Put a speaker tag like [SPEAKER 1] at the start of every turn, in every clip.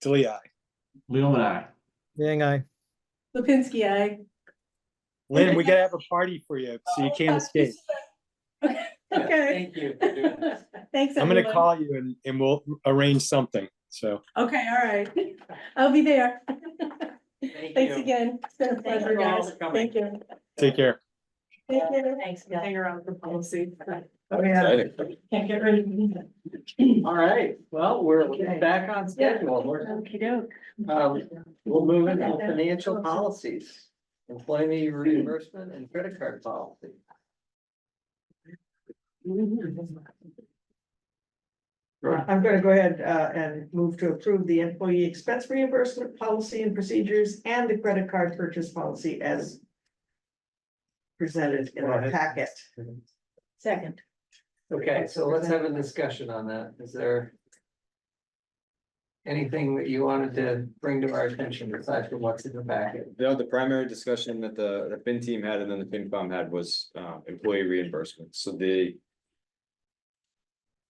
[SPEAKER 1] Tilly, I.
[SPEAKER 2] Leo and I.
[SPEAKER 3] Yang I.
[SPEAKER 4] Lipinski, I.
[SPEAKER 1] Lynn, we gotta have a party for you, so you can't escape.
[SPEAKER 4] Okay,
[SPEAKER 5] Thank you for doing this.
[SPEAKER 4] thanks.
[SPEAKER 1] I'm gonna
[SPEAKER 4] everyone.
[SPEAKER 1] call you and, and we'll arrange something, so.
[SPEAKER 4] Okay, all right. I'll be there.
[SPEAKER 5] Thank
[SPEAKER 4] Thanks
[SPEAKER 5] you.
[SPEAKER 4] again. It's been a pleasure,
[SPEAKER 5] you all
[SPEAKER 4] guys.
[SPEAKER 5] for coming.
[SPEAKER 4] Thank you.
[SPEAKER 1] Take care.
[SPEAKER 4] Take care.
[SPEAKER 6] Thanks, Oh, Bill.
[SPEAKER 4] Hang around for policy.
[SPEAKER 5] Exciting.
[SPEAKER 4] Can't get rid of me.
[SPEAKER 5] All right, well, we're
[SPEAKER 4] Okay.
[SPEAKER 5] back on schedule. We're,
[SPEAKER 6] Okey-doke.
[SPEAKER 5] um, we'll move into financial policies. Employee reimbursement and credit card policy.
[SPEAKER 2] Right.
[SPEAKER 7] I'm gonna go ahead uh, and move to approve the employee expense reimbursement policy and procedures and the credit card purchase policy as presented in our packet.
[SPEAKER 6] Second.
[SPEAKER 5] Okay, so let's have a discussion on that. Is there anything that you wanted to bring to our attention aside from what's in the packet?
[SPEAKER 8] No, the primary discussion that the, the fin team had and then the FinCom had was, uh, employee reimbursement, so the.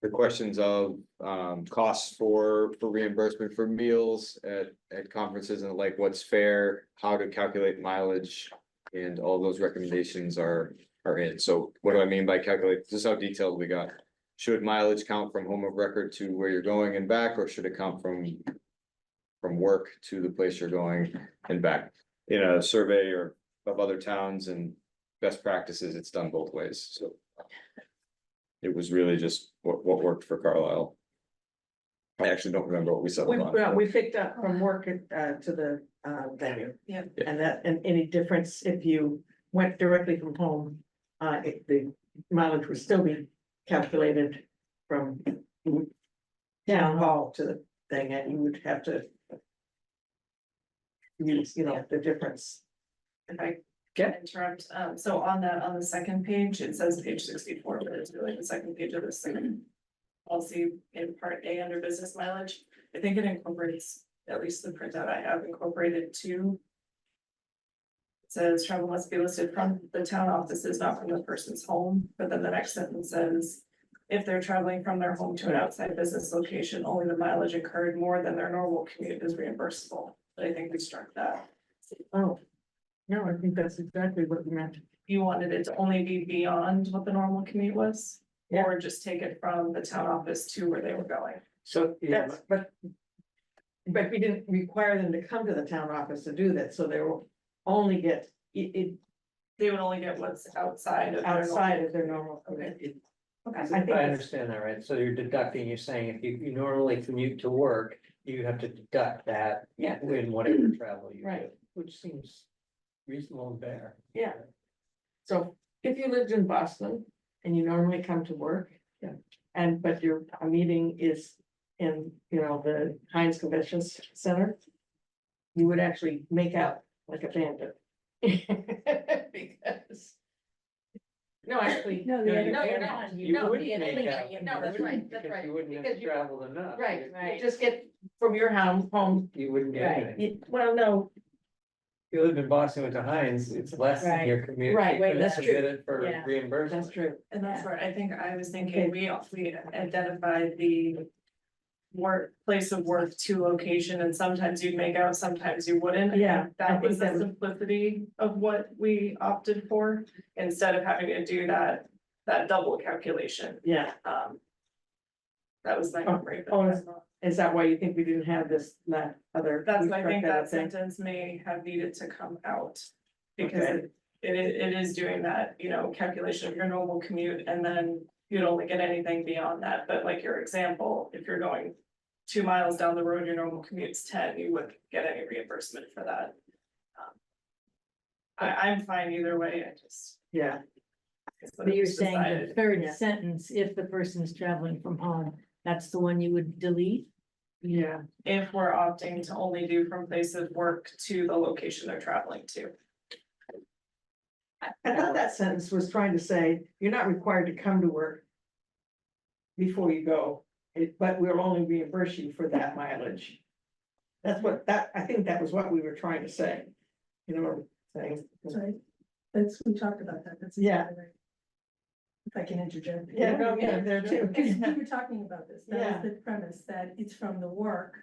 [SPEAKER 8] The questions of, um, costs for, for reimbursement for meals at, at conferences and like what's fair, how to calculate mileage. And all those recommendations are, are in, so what do I mean by calculate, this is how detailed we got. Should mileage count from home of record to where you're going and back, or should it count from? From work to the place you're going and back? in a survey or of other towns and best practices, it's done both ways, so. It was really just what, what worked for Carlisle. I actually don't remember what we
[SPEAKER 7] We,
[SPEAKER 8] settled on.
[SPEAKER 7] well, we picked up from work at, uh, to the uh, venue.
[SPEAKER 6] Yeah.
[SPEAKER 7] And that, and any difference if you went directly from home, uh, it- the mileage would still be calculated from town hall to the thing, and you would have to use, you know, the difference.
[SPEAKER 9] If I can interrupt, um, so on the, on the second page, it says page sixty-four, but it's really the second page of the second. Policy in part A under business mileage, I think it incorporates, at least the printout I have incorporated two. It Says travel must be listed from the town offices, not from the person's home, but then the next sentence says. If they're traveling from their home to an outside business location, only the mileage incurred more than their normal commute is reimbursable, but I think we struck that.
[SPEAKER 7] Oh, no, I think that's exactly what we meant.
[SPEAKER 9] you wanted it to only be beyond what the normal commute was?
[SPEAKER 7] Yeah.
[SPEAKER 9] Or just take it from the town office to where they were going?
[SPEAKER 5] So, yeah,
[SPEAKER 7] That's, but. But we didn't require them to come to the town office to do that, so they will only get, it, it
[SPEAKER 9] They would only get what's outside of. their normal-
[SPEAKER 7] outside of their normal.
[SPEAKER 9] Okay.
[SPEAKER 7] It-
[SPEAKER 9] Okay.
[SPEAKER 5] If I understand that right, so you're deducting, you're saying if you, you normally commute to work, you have to deduct that.
[SPEAKER 7] Yeah.
[SPEAKER 5] In whatever travel you do,
[SPEAKER 7] Right. Which seems,
[SPEAKER 5] reasonable and fair.
[SPEAKER 7] yeah. So if you lived in Boston and you normally come to work.
[SPEAKER 5] Yeah.
[SPEAKER 7] And but your uh, meeting is in, you know, the Heinz Convention C- Center. You would actually make out like a bandit. Because. No, actually.
[SPEAKER 6] No,
[SPEAKER 5] No,
[SPEAKER 6] the
[SPEAKER 5] you
[SPEAKER 6] other.
[SPEAKER 5] can't.
[SPEAKER 6] you're not.
[SPEAKER 5] You
[SPEAKER 6] No,
[SPEAKER 5] wouldn't
[SPEAKER 6] the other
[SPEAKER 5] make
[SPEAKER 6] thing
[SPEAKER 5] out.
[SPEAKER 6] that you- No,
[SPEAKER 5] You
[SPEAKER 6] that's
[SPEAKER 5] wouldn't,
[SPEAKER 6] right, that's
[SPEAKER 5] because
[SPEAKER 6] right.
[SPEAKER 5] You wouldn't
[SPEAKER 7] Because
[SPEAKER 5] have
[SPEAKER 7] you-
[SPEAKER 5] traveled enough.
[SPEAKER 7] Right,
[SPEAKER 5] You-
[SPEAKER 6] Right.
[SPEAKER 7] you just get from your house home,
[SPEAKER 5] You wouldn't get
[SPEAKER 6] Right.
[SPEAKER 5] anything.
[SPEAKER 7] you- well, no,
[SPEAKER 5] If you lived in Boston, went to Heinz, it's less than
[SPEAKER 6] Right.
[SPEAKER 5] your commute.
[SPEAKER 7] Right,
[SPEAKER 5] You
[SPEAKER 7] wait,
[SPEAKER 5] couldn't
[SPEAKER 7] that's true.
[SPEAKER 5] submit it For
[SPEAKER 6] Yeah.
[SPEAKER 5] reimbursement.
[SPEAKER 7] that's true.
[SPEAKER 9] And that's where I think I was
[SPEAKER 7] Okay.
[SPEAKER 9] thinking, we, we identified the. Work, place of work to location, and sometimes you'd make out, sometimes you wouldn't.
[SPEAKER 7] Yeah,
[SPEAKER 9] And
[SPEAKER 7] I
[SPEAKER 9] That
[SPEAKER 7] think
[SPEAKER 9] was
[SPEAKER 7] that
[SPEAKER 9] the
[SPEAKER 7] was-
[SPEAKER 9] simplicity of what we opted for, instead of having to do that, that double calculation,
[SPEAKER 7] Yeah,
[SPEAKER 9] um. That was my memory. but
[SPEAKER 7] Oh,
[SPEAKER 9] that's not-
[SPEAKER 7] is that why you think we didn't have this, that other?
[SPEAKER 9] That's,
[SPEAKER 7] we
[SPEAKER 9] why I
[SPEAKER 7] struck
[SPEAKER 9] think that
[SPEAKER 7] out thing?
[SPEAKER 9] sentence may have needed to come out. Because
[SPEAKER 7] Okay.
[SPEAKER 9] it, it is, it is doing that, you know, calculation of your normal commute and then you'd only get anything beyond that, but like your example, if you're going. Two miles down the road, your normal commute's ten, you wouldn't get any reimbursement for that. Um, I, I'm fine either way, I just.
[SPEAKER 7] Yeah.
[SPEAKER 9] it's what
[SPEAKER 6] But
[SPEAKER 9] it
[SPEAKER 6] you're
[SPEAKER 9] was
[SPEAKER 6] saying the
[SPEAKER 9] decided.
[SPEAKER 6] third
[SPEAKER 7] Yeah.
[SPEAKER 6] sentence, if the person's traveling from home, that's the one you would delete?
[SPEAKER 7] Yeah,
[SPEAKER 9] If we're opting to only do from place of work to the location they're traveling to.
[SPEAKER 7] I thought that sentence was trying to say, you're not required to come to work. Before you go, it- but we'll only reimburse you for that mileage. That's what, that, I think that was what we were trying to say. You know what I'm saying?
[SPEAKER 4] Sorry. That's, we talked about that, that's.
[SPEAKER 7] Yeah.
[SPEAKER 4] If I can interject.
[SPEAKER 7] Yeah, no, yeah, there too.
[SPEAKER 4] Because we were talking about this, that
[SPEAKER 7] Yeah.
[SPEAKER 4] was the premise, that it's from the work